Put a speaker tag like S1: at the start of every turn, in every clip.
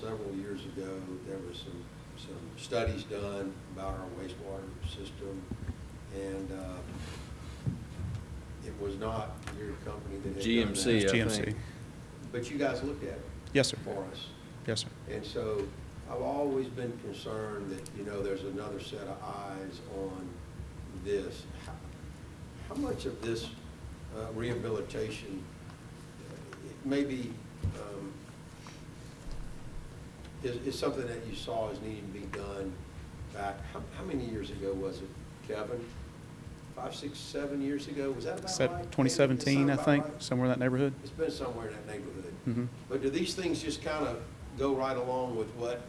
S1: several years ago, there was some, some studies done about our wastewater system, and uh, it was not your company that had done that.
S2: GMC, I
S3: GMC.
S2: think.
S1: But you guys looked at it.
S3: Yes, sir.
S1: For us.
S3: Yes, sir.
S1: And so I've always been concerned that, you know, there's another set of eyes on this. How- How much of this uh, rehabilitation, uh, it may be, um, is, is something that you saw as needing to be done back, how, how many years ago was it, Kevin? Five, six, seven years ago? Was that about
S3: Sep-
S1: right?
S3: 2017, I
S1: Sound about
S3: think,
S1: right?
S3: somewhere in that neighborhood.
S1: It's been somewhere in that neighborhood.
S3: Mhm.
S1: But do these things just kind of go right along with what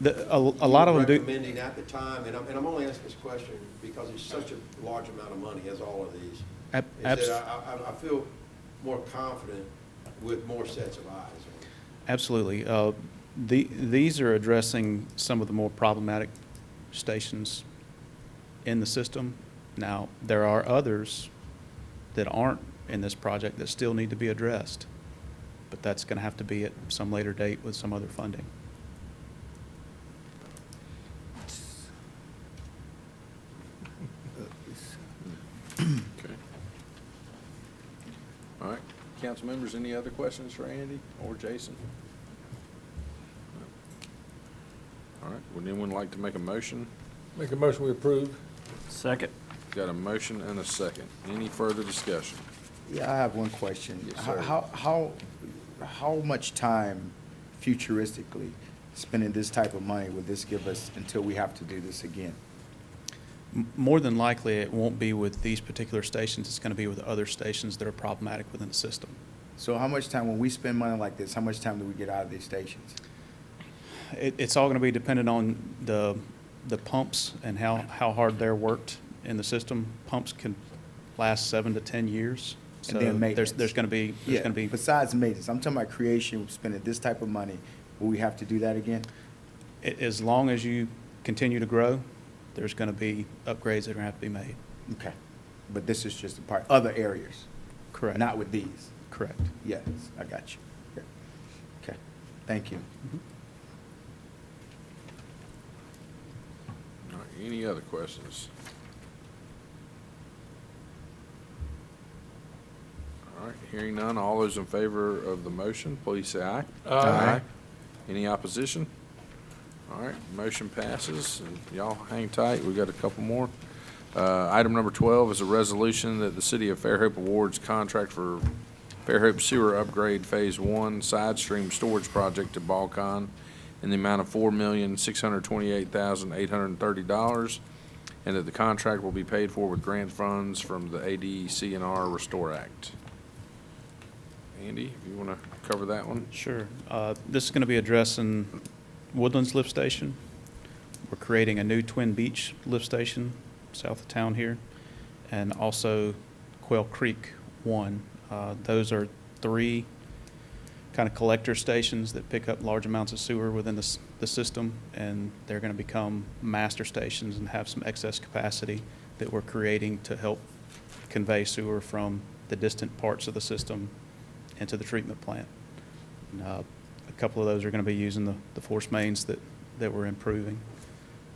S3: The, a,
S1: you
S3: a lot
S1: were
S3: of them do.
S1: recommending at the time? And I'm, and I'm only asking this question because it's such a large amount of money, as all of these.
S3: Ab-
S1: Is that
S3: abs-
S1: I, I, I feel more confident with more sets of eyes on it.
S3: Absolutely. Uh, the, these are addressing some of the more problematic stations in the system. Now, there are others that aren't in this project that still need to be addressed, but that's going to have to be at some later date with some other funding.
S2: Okay. All right, council members, any other questions for Andy or Jason? All right, would anyone like to make a motion?
S4: Make a motion, we approve.
S5: Second.
S2: Got a motion and a second. Any further discussion?
S6: Yeah, I have one question.
S2: Yes,
S6: How-
S2: sir.
S6: How, how, how much time futuristically spending this type of money would this give us until we have to do this again?
S3: M- More than likely, it won't be with these particular stations. It's going to be with other stations that are problematic within the system.
S6: So how much time, when we spend money like this, how much time do we get out of these stations?
S3: It, it's all going to be dependent on the, the pumps and how, how hard they're worked in the system. Pumps can last seven to 10 years.
S6: And then
S3: So there's,
S6: maintenance.
S3: there's going to be, there's
S6: Yeah,
S3: going to be,
S6: Besides maintenance, I'm talking about creation, spending this type of money, will we have to do that again?
S3: a- as long as you continue to grow, there's going to be upgrades that are going to have to be made.
S6: Okay, but this is just a part, other areas,
S3: Correct.
S6: not with these.
S3: Correct.
S6: Yes, I got you. Yeah. Okay, thank you.
S2: All right, any other questions? All right, hearing none, all those in favor of the motion, please say aye.
S4: Aye. Aye.
S2: Any opposition? All right, motion passes, and y'all hang tight, we got a couple more. Uh, Item number 12 is a resolution that the City of Fairhope awards contract for Fairhope Sewer Upgrade Phase 1 Side Stream Storage Project to Balcon in the amount of $4,628,830, and that the contract will be paid for with grant funds from the E ADCNR Restore Act. Andy, if you want to cover that one?
S3: Sure. Uh, This is going to be addressing Woodlands Lift Station. We're creating a new Twin Beach Lift Station south of town here, and also Quail Creek One. Uh, Those are three kind of collector stations that pick up large amounts of sewer within the, s- the system, and they're going to become master stations and have some excess capacity that we're creating to help convey sewer from the distant parts of the system into the treatment plant. And, uh, A couple of those are going to be using the, the force mains that, that we're improving.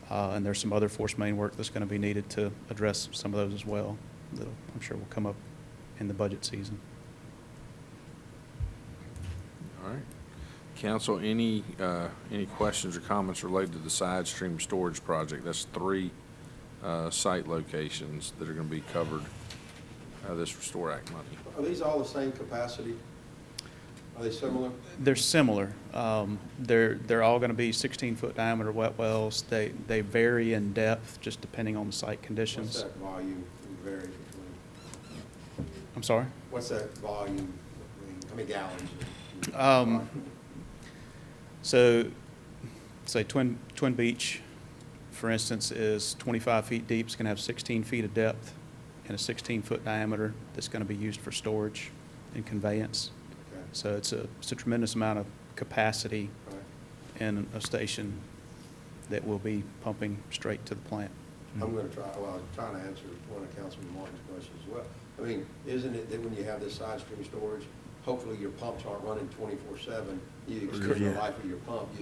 S3: Uh, And there's some other force main work that's going to be needed to address some of those as well, that I'm sure will come up in the budget season.
S2: All right. Council, any, uh, any questions or comments related to the side stream storage project? That's three, uh, site locations that are gonna be covered, uh, this Restore Act money.
S1: Are these all the same capacity? Are they similar?
S3: They're similar. Um, They're, they're all going to be 16-foot diameter wet wells. They, they vary in depth, just depending on the site
S1: What's
S3: conditions.
S1: that volume vary between?
S3: I'm sorry?
S1: What's that volume, between- how many gallons?
S3: Um, So, say Twin, Twin Beach, for instance, is 25 feet deep, it's going to have 16 feet of depth and a 16-foot diameter that's going to be used for storage and conveyance.
S1: Okay.
S3: So it's a, it's a tremendous amount of capacity
S1: All right.
S3: in a station that will be pumping straight to the plant.
S1: I'm gonna try, well, I'm trying to answer one of Councilman Martin's questions as well. I mean, isn't it that when you have this side stream storage, hopefully your pumps aren't running twenty-four seven. You extend the
S6: Yeah.
S1: life of your pump, you